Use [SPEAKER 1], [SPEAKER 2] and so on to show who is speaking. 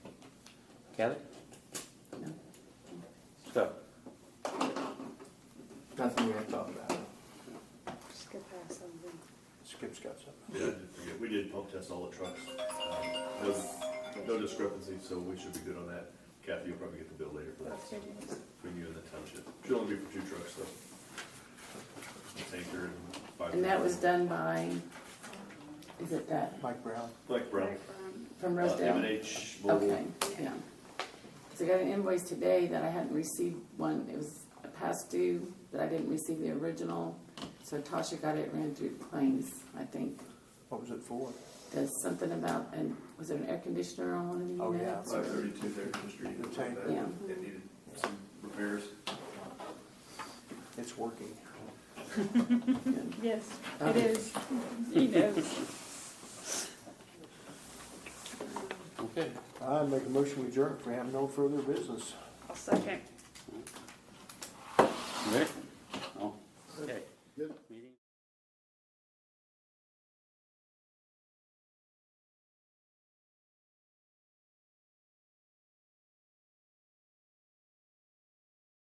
[SPEAKER 1] Kelly?
[SPEAKER 2] No.
[SPEAKER 1] So,
[SPEAKER 3] Nothing we have to talk about.
[SPEAKER 2] Skip past something.
[SPEAKER 3] Skip's got something.
[SPEAKER 4] Yeah, I did forget. we did pump test all the trucks. Um, No no discrepancy, so we should be good on that. Kathy, you'll probably get the bill later for that, so between you and the township. Should only be for two trucks, though. Tanker and five.
[SPEAKER 2] And that was done by, is it that,
[SPEAKER 3] Mike Brown,
[SPEAKER 4] Mike Brown.
[SPEAKER 2] from
[SPEAKER 4] Uh, M and
[SPEAKER 2] Rosedale?
[SPEAKER 4] H
[SPEAKER 2] Okay,
[SPEAKER 4] Mobile.
[SPEAKER 2] yeah. So I got an invoice today that I hadn't received one, it was a past due, that I didn't receive the original. So Tasha got it, ran through claims, I think.
[SPEAKER 3] what was it for?
[SPEAKER 2] Does something about, and was there an air conditioner on one of the
[SPEAKER 3] Oh, yeah.
[SPEAKER 2] units?
[SPEAKER 5] Five thirty-two Thurston Street,
[SPEAKER 3] The tank.
[SPEAKER 5] that-
[SPEAKER 2] Yeah.
[SPEAKER 5] that needed some repairs.
[SPEAKER 3] It's working.
[SPEAKER 6] Yes, it is. He knows.
[SPEAKER 1] okay.
[SPEAKER 3] I make a motion we adjourn if we have no further business.
[SPEAKER 6] I'll second.
[SPEAKER 1] Rick?